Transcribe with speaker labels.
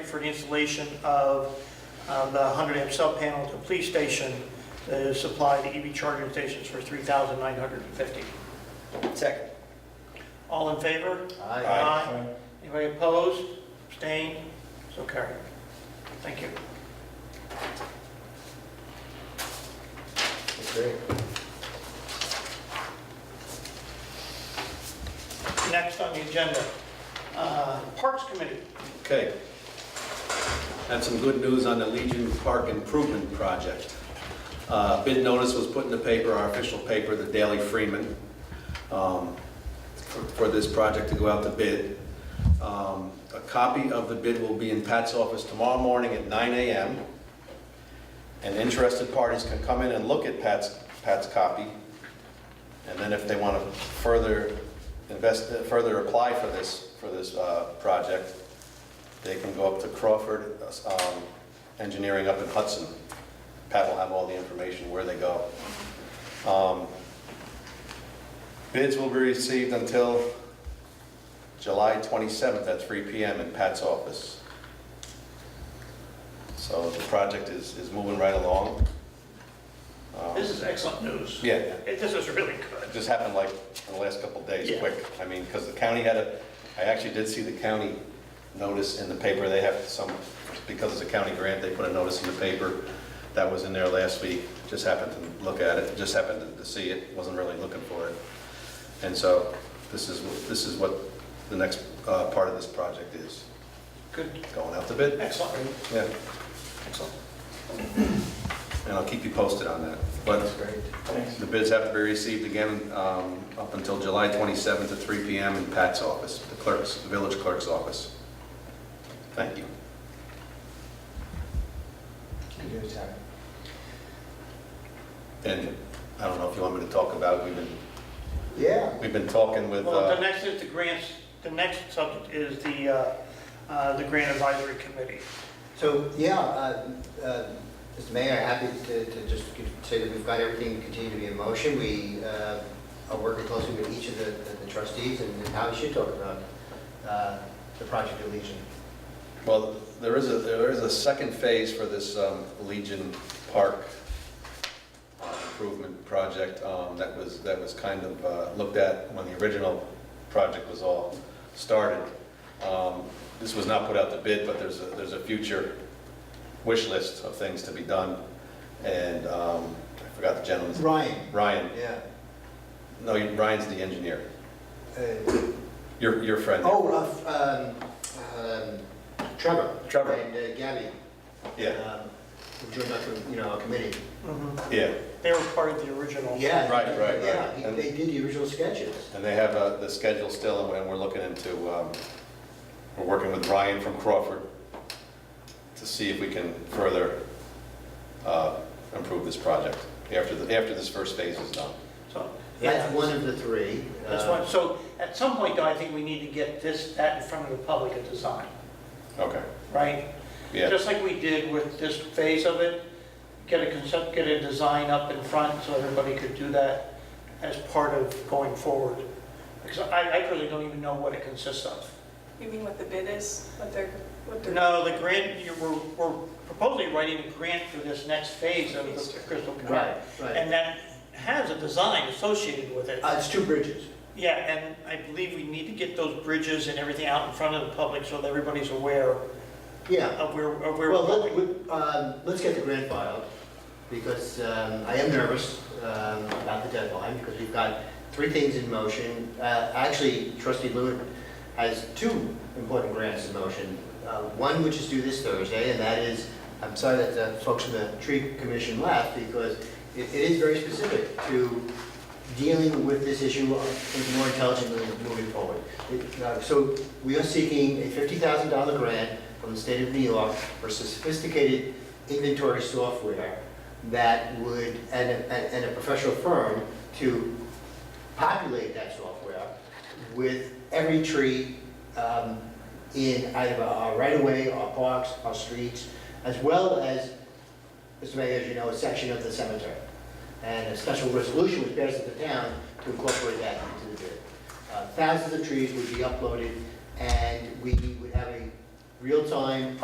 Speaker 1: for the installation of uh, the 100 amp sub panel to police station to supply the EV charging stations for 3,950.
Speaker 2: Second.
Speaker 1: All in favor?
Speaker 2: Aye.
Speaker 1: Anybody opposed? Abstained? So carried. Thank you.
Speaker 2: Great.
Speaker 1: Next on the agenda, uh, Parks Committee.
Speaker 3: Okay. Have some good news on the Legion Park Improvement Project. Uh, Bid notice was put in the paper, our official paper, the Daily Freeman, um, for for this project to go out to bid. Um, A copy of the bid will be in Pat's office tomorrow morning at 9 AM. And interested parties can come in and look at Pat's, Pat's copy. And then if they want to further invest, further apply for this, for this uh, project, they can go up to Crawford um, Engineering up in Hudson. Pat will have all the information where they go. Um, Bids will be received until July 27th at 3 PM in Pat's office. So the project is, is moving right along. Um,
Speaker 1: This is excellent news.
Speaker 3: Yeah,
Speaker 1: It- This is really good.
Speaker 3: it just happened like in the last couple of days,
Speaker 1: Yeah.
Speaker 3: quick. I mean, because the county had a, I actually did see the county notice in the paper, they have some, because it's a county grant, they put a notice in the paper that was in there last week, just happened to look at it, just happened to see it, wasn't really looking for it. And so this is, what- this is what the next uh, part of this project is,
Speaker 1: Good.
Speaker 3: going out to bid.
Speaker 1: Excellent.
Speaker 3: Yeah,
Speaker 1: Excellent.
Speaker 3: and I'll keep you posted on that. But
Speaker 2: That's great.
Speaker 3: The bids have to be received again um, up until July 27th at 3 PM in Pat's office, the clerk's, the village clerk's office. Thank you.
Speaker 2: You do, Terry.
Speaker 3: And I don't know if you want me to talk about, we've been,
Speaker 2: Yeah.
Speaker 3: we've been talking with,
Speaker 1: Well, the
Speaker 3: uh,
Speaker 1: next is the grants, the next subject is the, uh, uh, the Grant Advisory Committee.
Speaker 2: So, yeah, uh, uh, Mr. Mayor, happy to to just say that we've got everything continue to be in motion. We uh, are working closely with each of the the trustees and how we should talk about uh, the Project Legion.
Speaker 3: well, there is a, there is a second phase for this um, Legion Park improvement project um, that was, that was kind of uh, looked at when the original project was all started. Um, This was not put out to bid, but there's a, there's a future wish list of things to be done. And um, I forgot the gentleman's,
Speaker 2: Ryan,
Speaker 3: Ryan,
Speaker 2: yeah.
Speaker 3: no, Ryan's the engineer,
Speaker 2: Uh,
Speaker 3: your, your friend.
Speaker 2: Oh, uh, um, um, Trevor.
Speaker 3: Trevor.
Speaker 2: And uh, Gabby.
Speaker 3: Yeah,
Speaker 2: um, who Joined up from, you know, our committee. Mm-hmm.
Speaker 3: yeah,
Speaker 1: They were part of the original.
Speaker 2: Yeah.
Speaker 3: Right, right, right.
Speaker 2: Yeah, he-
Speaker 3: And-
Speaker 2: they did the original sketches.
Speaker 3: and they have uh, the schedule still, and we're looking into, um, we're working with Ryan from Crawford to see if we can further uh, improve this project after, the- after this first phase is done.
Speaker 1: So,
Speaker 2: That's
Speaker 1: yeah,
Speaker 2: one of the three.
Speaker 1: that's
Speaker 2: uh,
Speaker 1: one. So at some point, though, I think we need to get this, that in front of the public at design,
Speaker 3: Okay,
Speaker 1: right?
Speaker 3: yeah,
Speaker 1: Just like we did with this phase of it, get a concept, get a design up in front so everybody could do that as part of going forward. Because I, I really don't even know what it consists of.
Speaker 4: You mean what the bid is, what they're, what they're?
Speaker 1: No, the grant, you- we're, we're proposing writing a grant for this next phase of the Crystal Canal.
Speaker 2: Right, right.
Speaker 1: And that has a design associated with it.
Speaker 2: Uh, It's two bridges.
Speaker 1: Yeah, and I believe we need to get those bridges and everything out in front of the public so that everybody's aware
Speaker 2: Yeah.
Speaker 1: of where, of where
Speaker 2: Well,
Speaker 1: we're
Speaker 2: let-
Speaker 1: going.
Speaker 2: we- um, let's get the grant filed, because um, I am nervous um, about the deadline, because we've got three things in motion. Uh, Actually, trustee Lewin has two important grants in motion. Uh, One which is due this Thursday, and that is, I'm sorry that the folks from the tree commission left, because it it is very specific to dealing with this issue more intelligently moving forward. It- uh, So we are seeking a $50,000 grant from the state of New York for sophisticated inventory software that would, and a, and- and a professional firm to populate that software with every tree um, in either our right-of-way, our parks, our streets, as well as, Mr. Mayor, as you know, a section of the cemetery. And a special resolution was passed at the town to incorporate that into the bid. Uh, Thousands of trees would be uploaded, and we would have a real-time